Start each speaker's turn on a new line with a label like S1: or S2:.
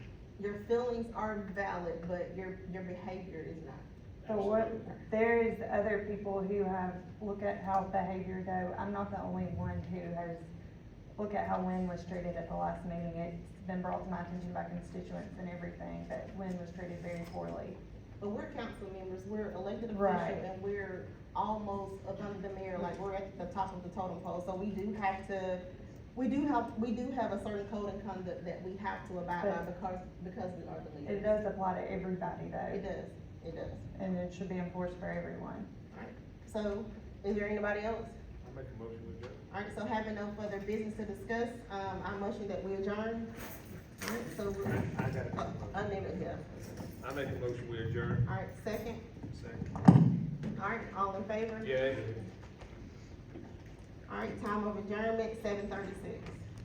S1: your feelings are valid, but your, your behavior is not.
S2: So what, there is other people who have, look at how behavior go, I'm not the only one who has, look at how Lynn was treated at the last meeting, it's been brought to my attention by constituents and everything, that Lynn was treated very poorly.
S1: But we're council members, we're elected
S2: Right.
S1: officials, and we're almost up under the mayor, like, we're at the top of the totem pole, so we do have to, we do have, we do have a certain code of conduct that we have to abide by because, because we are the
S2: It
S1: leaders.
S2: does apply to everybody
S1: It
S2: though,
S1: does, it does.
S2: and it should be enforced for everyone.
S1: So, is there anybody else?
S3: I make a motion with that.
S1: Alright, so having no further business to discuss, um, I motion that we adjourn. Alright, so, we're-
S3: I got it.
S1: uh, unnamed, yeah.
S3: I make a motion we adjourn.
S1: Alright, second,
S3: Second.
S1: alright, all in favor?
S3: Yeah.
S1: Alright, time of adjournment, seven thirty-six.